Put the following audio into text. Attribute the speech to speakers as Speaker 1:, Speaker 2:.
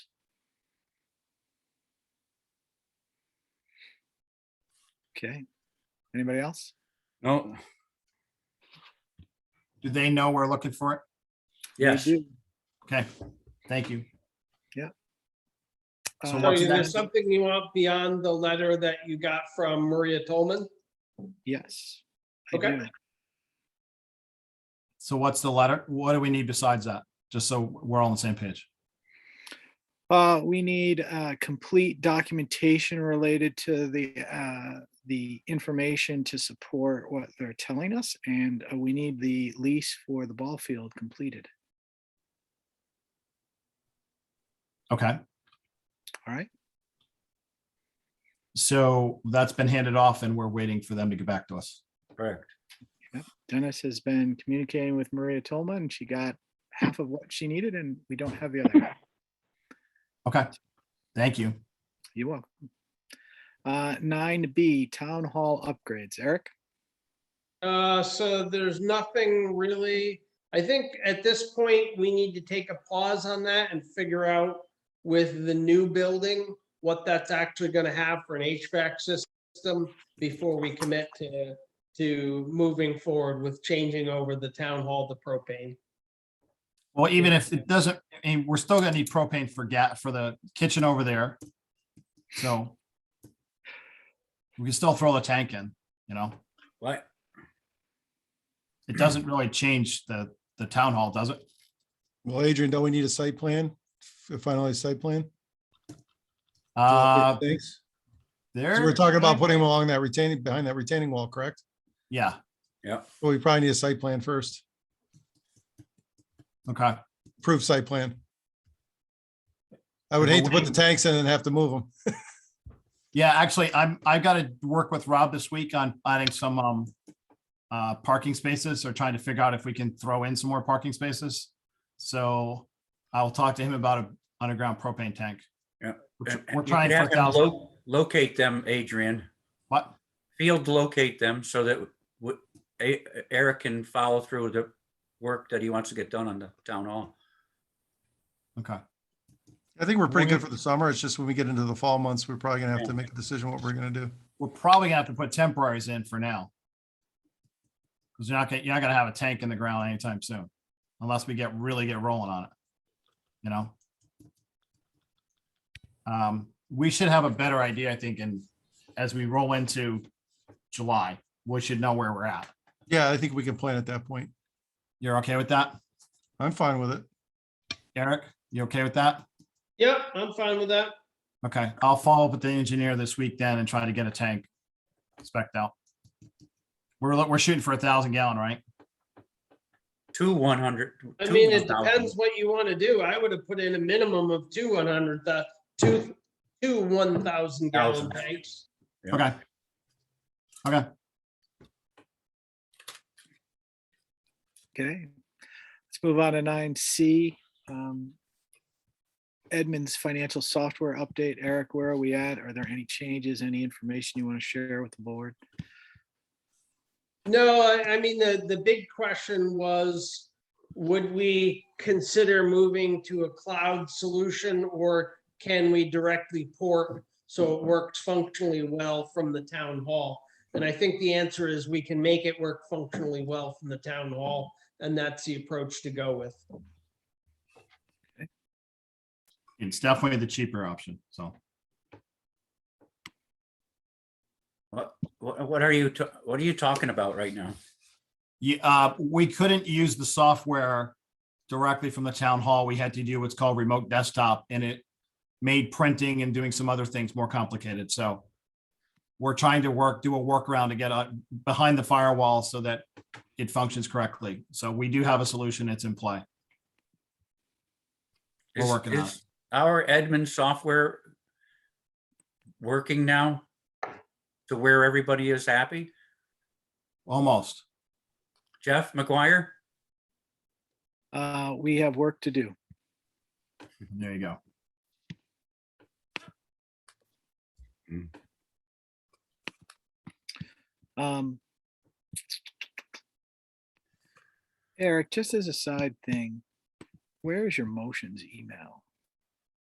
Speaker 1: Okay. Anybody else?
Speaker 2: No,
Speaker 3: Do they know we're looking for it?
Speaker 4: Yes,
Speaker 1: We do.
Speaker 3: Okay, thank you. So
Speaker 1: Uh,
Speaker 5: So
Speaker 3: what's
Speaker 5: is there
Speaker 3: next?
Speaker 5: something you want beyond the letter that you got from Maria Tolman?
Speaker 1: Yes. I
Speaker 5: Okay.
Speaker 1: do.
Speaker 3: So what's the letter? What do we need besides that? Just so we're all on the same page.
Speaker 1: Uh, we need, uh, complete documentation related to the, uh, the information to support what they're telling us, and uh, we need the lease for the ball field completed.
Speaker 3: Okay,
Speaker 1: All right?
Speaker 3: so that's been handed off and we're waiting for them to get back to us.
Speaker 4: correct.
Speaker 1: Dennis has been communicating with Maria Tolman. and She got half of what she needed, and we don't have the other. half.
Speaker 3: Okay, thank you.
Speaker 1: You're welcome. Uh, nine B, Town Hall upgrades. Eric?
Speaker 5: Uh, so there's nothing really, I think at this point, we need to take a pause on that and figure out with the new building, what that's actually gonna have for an HVAC system before we commit to, to moving forward with changing over the town hall to propane.
Speaker 3: Well, even if it doesn't, I mean, we're still gonna need propane for gas for the kitchen over there. So we can still throw the tank in, you know,
Speaker 4: What?
Speaker 3: it doesn't really change the, the town hall, does it?
Speaker 6: Well, Adrian, don't we need a site plan, a finalized site plan?
Speaker 3: Uh,
Speaker 6: Thanks.
Speaker 3: there.
Speaker 6: So we're talking about putting them along that retaining, behind that retaining wall, correct?
Speaker 3: Yeah,
Speaker 6: Well, we probably need a site plan first,
Speaker 3: okay.
Speaker 6: approved site plan. I would hate to put the tanks in and have to move them.
Speaker 3: Yeah, actually, I'm, I've got to work with Rob this week on finding some, um, uh, parking spaces or trying to figure out if we can throw in some more parking spaces. So I'll talk to him about an underground propane tank.
Speaker 2: Yeah.
Speaker 3: We're
Speaker 4: And-
Speaker 3: tr-
Speaker 4: and
Speaker 3: We're
Speaker 4: you
Speaker 3: trying
Speaker 4: can
Speaker 3: for a
Speaker 4: have them
Speaker 3: thousand,
Speaker 4: lo- Locate them, Adrian.
Speaker 3: what?
Speaker 4: Field locate them so that w- E- Eric can follow through with the work that he wants to get done on the town hall.
Speaker 3: Okay,
Speaker 6: I think we're pretty good for the summer. It's just when we get into the fall months, we're probably gonna have to make a decision what we're gonna do.
Speaker 3: we're probably gonna have to put temporaries in for now. Because you're not gonna, you're not gonna have a tank in the ground anytime soon, unless we get, really get rolling on it. You know? Um, we should have a better idea, I think, and as we roll into July, we should know where we're at.
Speaker 6: Yeah, I think we can plan at that point.
Speaker 3: You're okay with that?
Speaker 6: I'm fine with it.
Speaker 3: Eric, you okay with that?
Speaker 5: Yep, I'm fine with that.
Speaker 3: Okay, I'll follow up with the engineer this week then and try to get a tank spec'd out. We're, lo- we're shooting for a thousand gallon, right?
Speaker 4: Two 100.
Speaker 5: I
Speaker 4: two
Speaker 5: mean, it
Speaker 4: 1,000.
Speaker 5: depends what you want to do. I would have put in a minimum of two one hundred, uh, two, two one thousand gallon
Speaker 4: Thousand.
Speaker 5: tanks.
Speaker 4: Yeah.
Speaker 3: Okay. Okay,
Speaker 1: Okay. Let's move on to nine C. um, Edmunds Financial Software Update. Eric, where are we at? Are there any changes, any information you want to share with the board?
Speaker 5: No, I, I mean, the, the big question was, would we consider moving to a cloud solution or can we directly port so it works functionally well from the town hall? And I think the answer is we can make it work functionally well from the town hall, and that's the approach to go with.
Speaker 3: it's definitely the cheaper option, so.
Speaker 4: What, what what are you, ta- what are you talking about right now?
Speaker 3: Yeah, uh, we couldn't use the software directly from the town hall. We had to do what's called remote desktop and it made printing and doing some other things more complicated, so we're trying to work, do a workaround to get uh, behind the firewall so that it functions correctly. So we do have a solution. It's in play. We're
Speaker 4: Is-
Speaker 3: working on it.
Speaker 4: is Our admin software working now to where everybody is happy?
Speaker 3: Almost.
Speaker 4: Jeff McGuire?
Speaker 1: Uh, We have work to do.
Speaker 3: There you go.
Speaker 1: Um, Eric, just as a side thing, where is your motions email?